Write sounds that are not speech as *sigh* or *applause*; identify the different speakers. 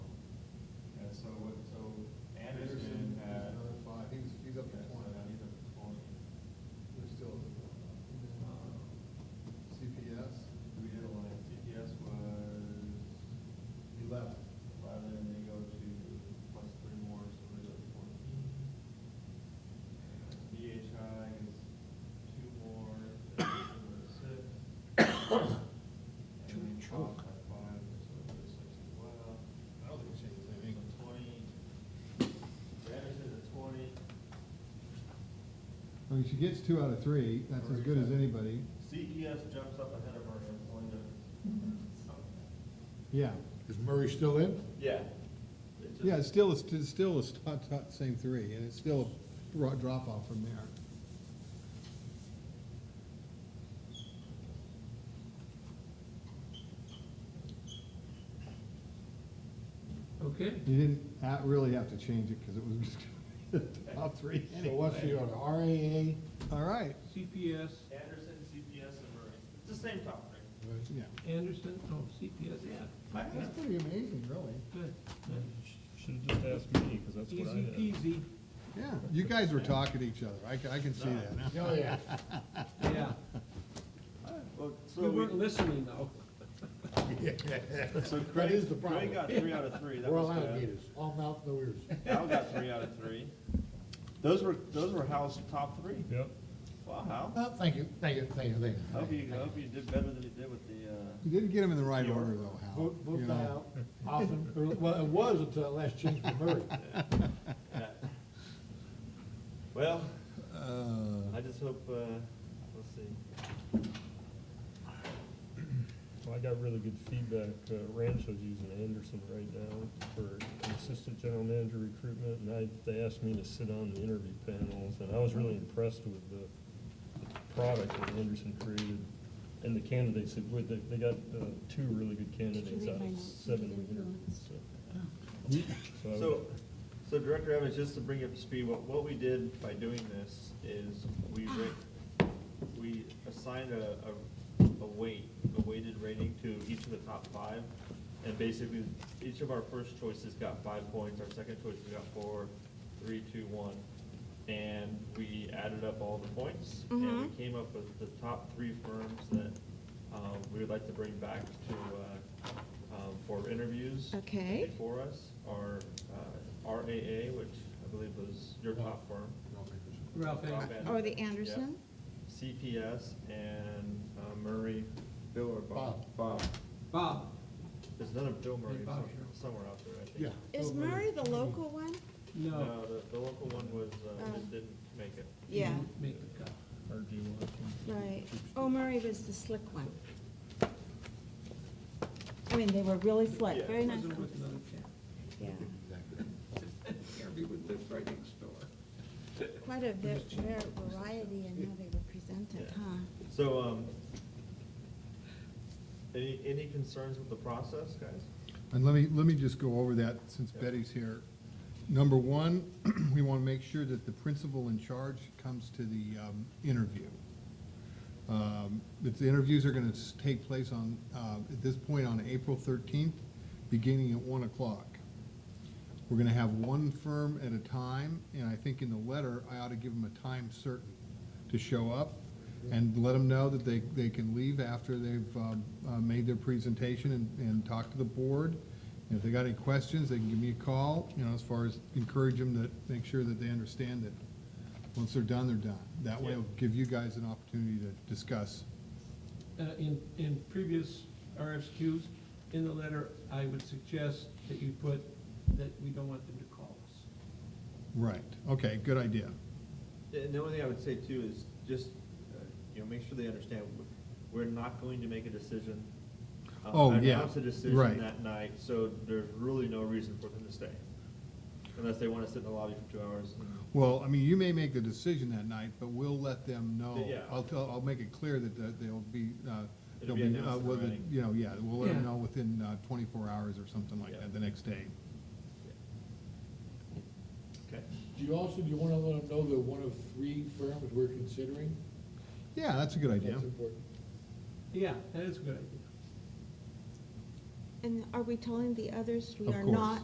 Speaker 1: uh,
Speaker 2: Uh, mean, she gets two out of three, that's as good as anybody,
Speaker 1: CES jumps up ahead of her, it's going to.
Speaker 2: yeah.
Speaker 3: Is Murray still in?
Speaker 1: Yeah.
Speaker 2: Yeah, it's still, it's still the top, top, same three, and it's still a dro- drop off from there.
Speaker 4: Okay,
Speaker 2: You didn't ha- really have to change it, because it was just *laughs* the top three
Speaker 3: So what's the
Speaker 2: anyway.
Speaker 3: order, RAA?
Speaker 2: All right,
Speaker 4: CPS,
Speaker 1: Anderson, CPS, and Murray. It's the same topic.
Speaker 2: yeah.
Speaker 4: Anderson, oh, CPS, yeah. Yeah,
Speaker 2: That's pretty amazing, really.
Speaker 4: Good, good.
Speaker 5: Should've just asked me, because that's what I
Speaker 4: Easy
Speaker 5: had.
Speaker 4: peasy,
Speaker 2: Yeah, you guys were talking to each other, I, ca- I can see that now.
Speaker 3: Oh, yeah.
Speaker 4: yeah.
Speaker 1: Well,
Speaker 4: We weren't listening though.
Speaker 1: so
Speaker 3: That is
Speaker 1: Craig,
Speaker 3: the
Speaker 1: Craig got
Speaker 3: problem.
Speaker 1: three out of three. That
Speaker 3: We're all
Speaker 1: was
Speaker 3: out
Speaker 1: good.
Speaker 3: of meters, all mouth, no ears.
Speaker 1: Hal got three out of three. Those were, those were Hal's top three.
Speaker 5: Yep.
Speaker 1: Wow, Hal.
Speaker 3: Oh, thank you, thank you, thank you, thank you.
Speaker 1: I Hope you, I hope you did better than you did with the, uh,
Speaker 2: You didn't get them in the right order, though, Hal.
Speaker 3: Vote,
Speaker 2: you
Speaker 3: vote
Speaker 2: know.
Speaker 3: die out often, *laughs* or, well, it was until that last change for Murray.
Speaker 1: yeah. well,
Speaker 2: Uh,
Speaker 1: I just hope, uh, we'll see.
Speaker 5: Well, I got really good feedback. Uh, Rancho's using Anderson right now for an assistant general manager recruitment, and I, they asked me to sit on the interview panels, and I was really impressed with the product that Anderson created and the candidates that were, they, they got, uh, two really good candidates
Speaker 6: read
Speaker 5: out
Speaker 6: my
Speaker 5: of
Speaker 6: notes? Oh.
Speaker 5: seven we interviewed, so. So I would-
Speaker 1: So, so Director Evans, just to bring you up to speed, what, what we did by doing this is we ra- we assigned a, a, a weight, a weighted rating to each of the top five. And basically, each of our first choices got five points, our second choices got four, three, two, one. And we added up all the points and we came up with the top three firms that, um, we would like to bring back to, uh, um, for interviews
Speaker 6: Okay.
Speaker 1: for us are uh, RAA, which I believe was your top firm.
Speaker 4: Ralph, eh?
Speaker 1: Rob
Speaker 4: Anderson.
Speaker 1: Anderson,
Speaker 6: Or Oh, the
Speaker 1: yeah.
Speaker 6: Anderson?
Speaker 1: CPS and uh, Murray, Bill or Bob? Bob.
Speaker 4: Bob,
Speaker 1: There's another Bill Murray
Speaker 4: Hey, Bob,
Speaker 1: some-
Speaker 4: sure.
Speaker 1: somewhere out there, I think.
Speaker 3: Yeah.
Speaker 6: Is Murray the local one?
Speaker 4: no.
Speaker 1: No, the, the local one was, uh,
Speaker 6: Oh.
Speaker 1: that didn't make it.
Speaker 6: Yeah,
Speaker 4: Make the cut.
Speaker 5: RG Watkins.
Speaker 6: right. Oh, Murray was the slick one. I mean, they were really
Speaker 1: Yeah,
Speaker 6: slick, very nice.
Speaker 4: Wasn't with
Speaker 6: ones.
Speaker 4: another cat.
Speaker 6: Yeah,
Speaker 4: Gary would live right next door.
Speaker 6: quite a bit, rare variety in how they were presented,
Speaker 1: Yeah.
Speaker 6: huh?
Speaker 1: So, um, any, any concerns with the process, guys?
Speaker 2: And let me, let me just go over that since Betty's here. Number one, *clears throat* we want to make sure that the principal in charge comes to the um, interview. Um, If the interviews are going to take place on, uh, at this point on April 13th, beginning at 1 o'clock. We're going to have one firm at a time, and I think in the letter, I ought to give them a time certain to show up and let them know that they, they can leave after they've um, uh, made their presentation and, and talked to the board. And if they got any questions, they can give me a call, you know, as far as encourage them to make sure that they understand that once they're done, they're done. That way it'll give you guys an opportunity to discuss.
Speaker 4: Uh, in, in previous RFQs, in the letter, I would suggest that you put that we don't want them to call us.
Speaker 2: Right, okay, good idea.
Speaker 1: Yeah, And the only thing I would say too is just, uh, you know, make sure they understand, w- we're not going to make a decision. uh,
Speaker 2: Oh, yeah,
Speaker 1: Announce a decision
Speaker 2: right.
Speaker 1: that night, so there's really no reason for them to stay. Unless they wanna sit in the lobby for two hours.
Speaker 2: Well, I mean, you may make the decision that night, but we'll let them know.
Speaker 1: Yeah.
Speaker 2: I'll, tell- I'll make it clear that the- they'll be, uh,
Speaker 1: It'll
Speaker 2: they'll
Speaker 1: be
Speaker 2: be, uh,
Speaker 1: announced in
Speaker 2: whether-
Speaker 1: writing.
Speaker 2: you know, yeah, we'll let them
Speaker 4: Yeah.
Speaker 2: know within uh, twenty-four hours or something like
Speaker 1: Yeah.
Speaker 2: that, the next day.
Speaker 1: Okay,
Speaker 3: Do you also, do you wanna let them know that one of three firms we're considering?
Speaker 2: Yeah, that's a good idea.
Speaker 3: That's important.
Speaker 4: Yeah, that is a good idea.
Speaker 6: And are we telling the others we
Speaker 2: Of
Speaker 6: are
Speaker 2: course.
Speaker 6: not